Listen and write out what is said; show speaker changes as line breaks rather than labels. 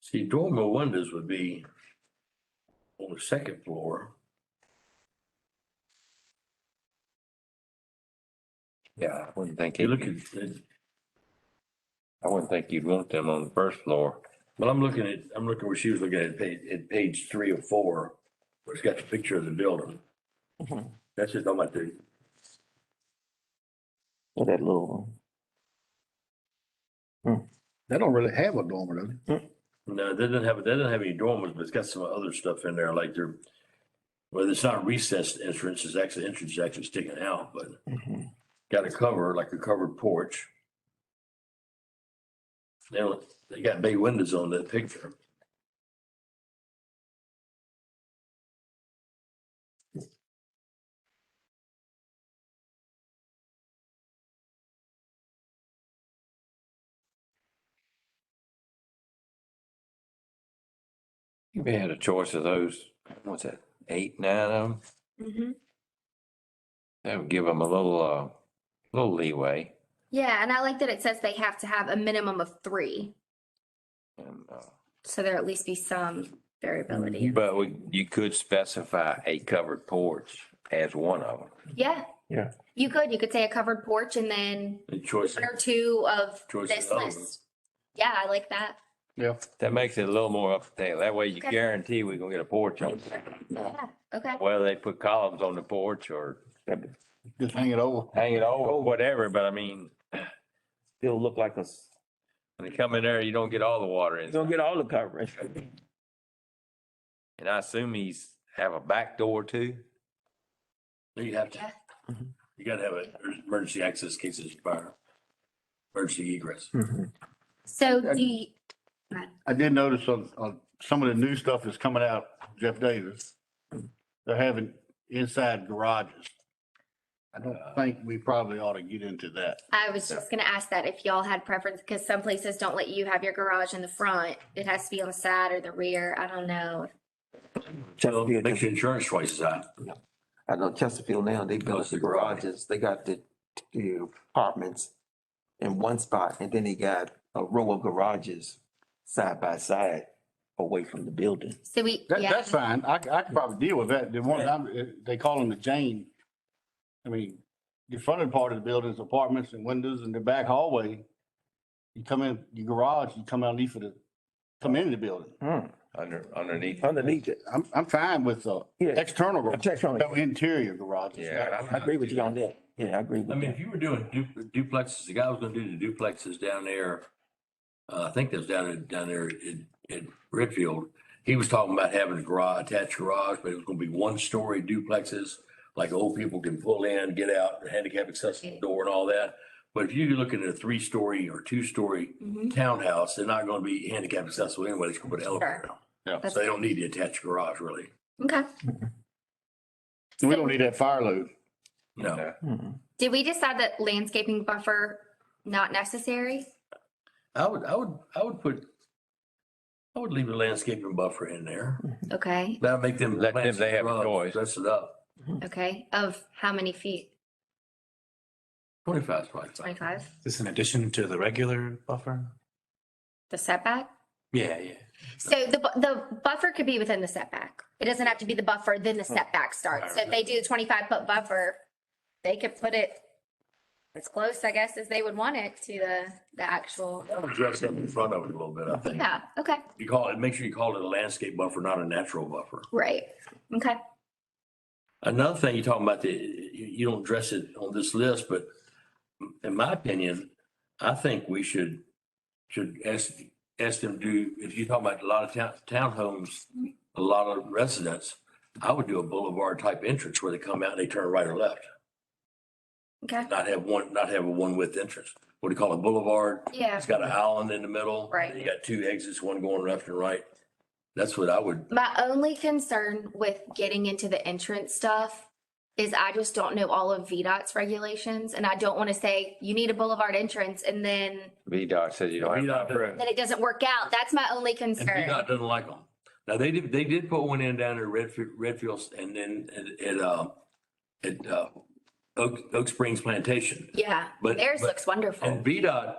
See, dormer windows would be on the second floor.
Yeah, I wouldn't think,
You're
you-
looking, at-
I wouldn't think you'd want them on the first floor.
well, I'm looking at, I'm looking where she was looking at page, at page three or four, where it's got the picture of the building.
Mhm.
That's just on my thing.
Or that little one.
They don't really have a dormer, do they?
No, that doesn't have, that doesn't have any dormers, but it's got some other stuff in there, like they're, well, it's not recessed entrance, it's actually, entrance is actually sticking out, but
Mhm.
got a cover, like a covered porch. They don't, they got big windows on that picture.
You had a choice of those, what's that, eight, nine of them?
hmm
That would give them a little, uh, little leeway.
Yeah, and I like that it says they have to have a minimum of three,
And, uh,
so there at least be some variability.
Mm-hmm. but we, you could specify a covered porch as one of them.
Yeah.
Yeah.
You could, you could say a covered porch and then
The choice,
one or two of
Choice
this
of elements.
list. Yeah, I like that.
That makes it a little more up to date. That way you
Okay.
guarantee we're gonna get a porch on, it.
Yeah, okay.
whether they put columns on the porch or
Just hang it over.
hang it over, whatever, but I mean,
Still look like a, s-
when they come in there, you don't get all the water
you
in.
don't get all the coverage.
And I assume he's have a back door too?
you have to,
Yeah.
Mhm.
you gotta have a emergency access in case it's fire. Emergency egress.
Mhm.
So do
And-
you,
I did notice on, on some of the new stuff that's coming out, Jeff Davis, they're having inside garages. I don't think we probably ought to get into that.
I was just gonna ask that if y'all had preference, because some places don't let you have your garage in the front. It has to be on the side or the rear. I don't know.
So
Chesterfield,
makes your insurance twice as high.
I know Chesterfield now, they built
it's
the
the garage.
garages, they got the, the apartments in one spot, and then they got a row of garages side by side away from the building.
So we,
That,
yeah,
that's fine. I, c- I could probably deal with that. The one, I'm- uh, they call them the Jane. I mean, the fronted part of the building's apartments and windows and the back hallway. You come in, your garage, you come out leave for the, come into the building.
Under, underneath.
Underneath it,
I'm, I'm fine with, uh,
yeah,
external
I'm
garage,
just trying
no
to-
interior garages.
Yeah. I'm
I agree with you on that, yeah, I agree
I
with
mean,
you.
if you were doing du- duplexes, the guy was gonna do the duplexes down there. Uh, I think that's down in, down there in, in Redfield. He was talking about having a garage, attached garage, but it was gonna be one story duplexes. Like old people can pull in, get out, handicap accessible door and all that. But if you're looking at a three story or two story
Mhm.
townhouse, they're not gonna be handicap accessible anyway. They can put an elevator
Sure.
down.
that's,
So they don't need the attached garage really.
okay.
We don't need that fire load.
No.
Hmm.
Mhm.
Did we decide that landscaping buffer not necessary?
I would, I would, I would put, I would leave a landscaping buffer in there.
Okay,
That'd make them.
Let them-
plant
they have a
some shrubs,
choice.
Dress it up.
Mm.
okay. Of how many feet?
Twenty-five, twenty-five.
Twenty-five?
This in addition to the regular buffer?
The setback?
Yeah, yeah.
So the, bu- the buffer could be within the setback. It doesn't have to be the buffer, then the
Oh,
setback starts. So if they do the twenty-five foot buffer, they could put it as close, I guess, as they would want it to the, the actual,
I would Dress up in front of it a little bit, I think.
yeah, okay,
You call it, make sure you call it a landscape buffer, not a natural buffer.
right, okay.
Another thing you're talking about, the, you, you don't dress it on this list, but in my opinion, I think we should, should ask, ask them do, if you're talking about a lot of town, townhomes, a lot of residents, I would do a boulevard type entrance where they come out and they turn right or left,
Okay,
not have one, not have a one width entrance. What do you call it, boulevard?
yeah.
It's got an island in the middle.
Right.
You got two exits, one going left and right. That's what I would,
My only concern with getting into the entrance stuff is I just don't know all of VDOT's regulations and I don't want to say you need a boulevard entrance and then,
VDOT says you don't
VDOT
have.
doesn't-
then it doesn't work out. That's my only
and
concern.
VDOT doesn't like them. Now, they did, they did put one in down at Redfield, Redfield and then at, at, uh, at, uh, Oak, Oak Springs Plantation.
Yeah,
But,
theirs
but-
looks wonderful.
and VDOT